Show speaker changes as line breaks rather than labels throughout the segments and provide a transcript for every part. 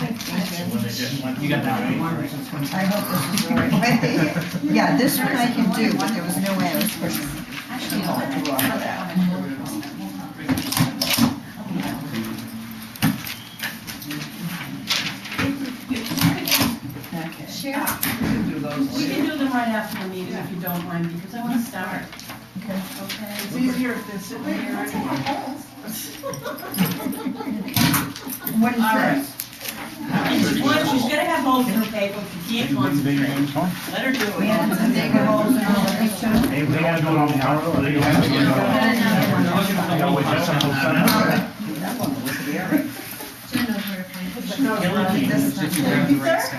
and when they didn't want to.
You got that
do it,
right.
I hope this is the right one. Yeah, this one I can do, but there was no way I was pushing.
Actually, I'll let you have that one. Share. We can do them right after the meeting if you don't mind, because I want to start.
Okay.
Okay?
It's easier if they're sitting
Wait,
here.
what's in my hands?
What is
All right.
this?
She's going- she's gonna have holes in her paper, if you can't concentrate, let her do it.
We had some big holes in all of these, too.
They, they gotta do it on the hour, or they don't have to do it on. They gotta wait till Central Time.
Jen knows where to find it.
No, I think this is not-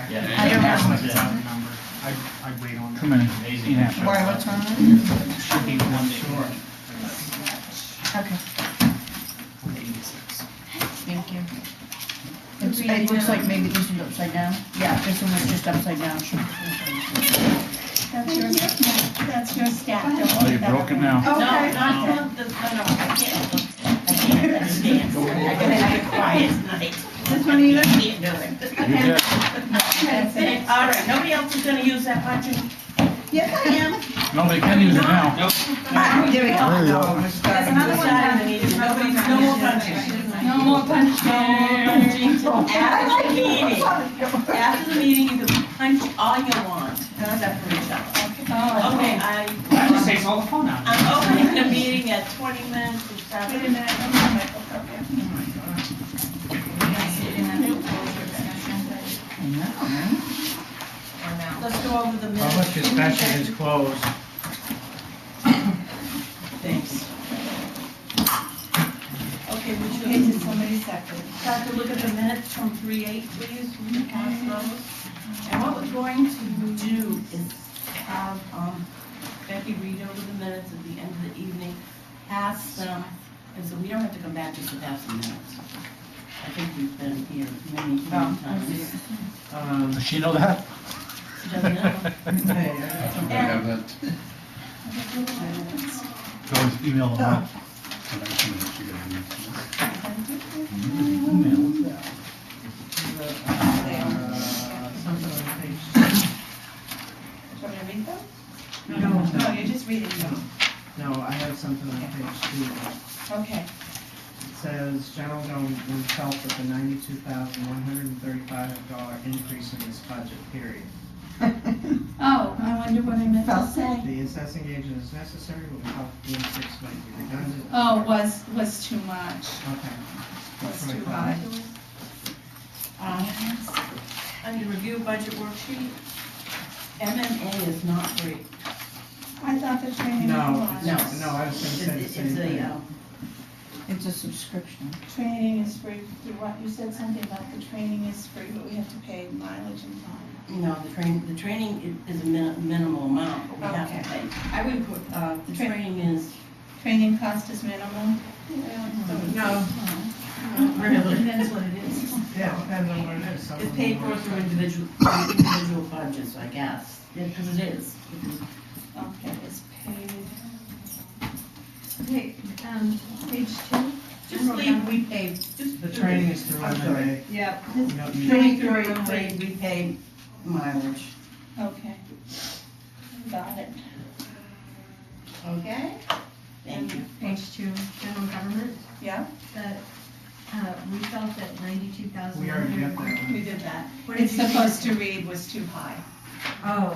Yeah.
I don't know.
I'd wait on.
Come in.
Amazing.
Why, what's wrong with it?
Should be one day.
Okay,
Eighty-six.
thank you. It's- It looks like maybe this one's upside down. Yeah, this one was just upside down.
That's your, that's your stack. Don't
Oh,
worry
you're
about
broken
it.
now.
No, not
Okay.
the, no, no, I can't, look. I can't understand, so I gotta have a quiet night. This one either? Can't do it.
You did.
All right, nobody else is gonna use that punching?
Yes, I am.
No, they can use it now.
Ah, There we go.
There's another one down in the meeting, nobody, no more punching. No more punching. No more punching. After the meeting, after the meeting, you can punch all you want, except for each other. Okay, I,
That just takes all the fun out.
I'm opening the meeting at twenty minutes to start.
Wait a minute, I'm on my- okay.
Let's go over the minutes.
Public discussion is closed.
Thanks. Okay, would you
Okay,
hate
did somebody second?
to look at the minutes from three eight, please, from the past those? And what we're going to do is have um, Becky read over the minutes at the end of the evening, pass them, and so we don't have to come back just to pass the minutes. I think we've been here many, many times.
Um,
Does she know that?
She doesn't know. And-
Go email them. out. Email.
uh, something on page
Do you want me to read them? No, you're just reading them.
No, I have something on page two.
Okay.
It says General Government felt that the ninety-two thousand, one hundred and thirty-five dollar increase in this budget, period.
Oh, I wonder what I meant to say.
The assessing agent is necessary, but we thought the six might be redundant.
Oh, was, was too much.
Okay.
That's too high.
Um,
Uh-huh.
I need to review budget worksheet. MMA is not free.
I thought the training
No,
was.
it's- no, I was
It's
gonna say the
it's
same
a,
thing.
uh,
It's a subscription.
Training is free, you what, you said something about the training is free, but we have to pay mileage and time.
you know, the train, the training i- is a min- minimal amount, but we have to pay. I would put, uh, the training is.
Training cost is minimal.
No,
Really? That's what Mm-hmm. it is.
Yeah, it depends on what it is. Some
It's
of
paid
them
for
are-
through individual, through individual budgets, I guess, because it is.
Okay, it's paid.
Wait, um, page two?
Just leave, we pay, just.
The training is through
I'm sorry.
MMA.
Yeah.
You don't need-
Training through, we we pay mileage.
Okay. Got it.
Okay? Thank you.
Page two, general government,
Yeah,
that, uh, we felt that ninety-two thousand.
We already got that one.
we did that.
What did
It's
you?
supposed to read was too high.
Oh.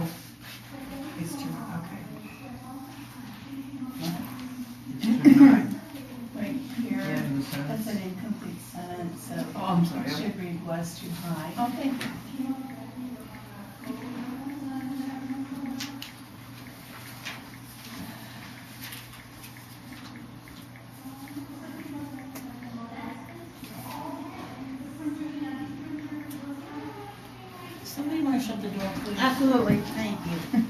It's two, okay.
It's too high.
Right
Yeah,
here,
in the sense.
that's an incomplete sentence, so
Oh, I'm
it
sorry.
should read was too high.
Okay. Somebody want to shut the door, please? Absolutely, thank you.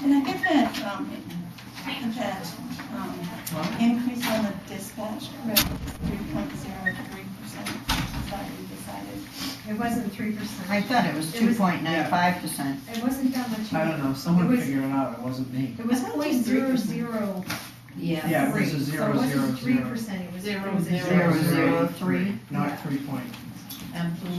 Can I get that, um, that, um, increase on the dispatch, correct, three point zero three percent, is that what we decided?
It wasn't three percent.
I thought it was
It was-
2.95%.
It wasn't that much.
I don't know, someone
It was-
figure it out, it wasn't me.
It was point zero zero
Yeah, it was
three,
a
so it
zero, zero,
wasn't three
zero.
percent, it was.
Zero,
it was a
zero,
Zero, zero, three.
Not three point
Absolutely.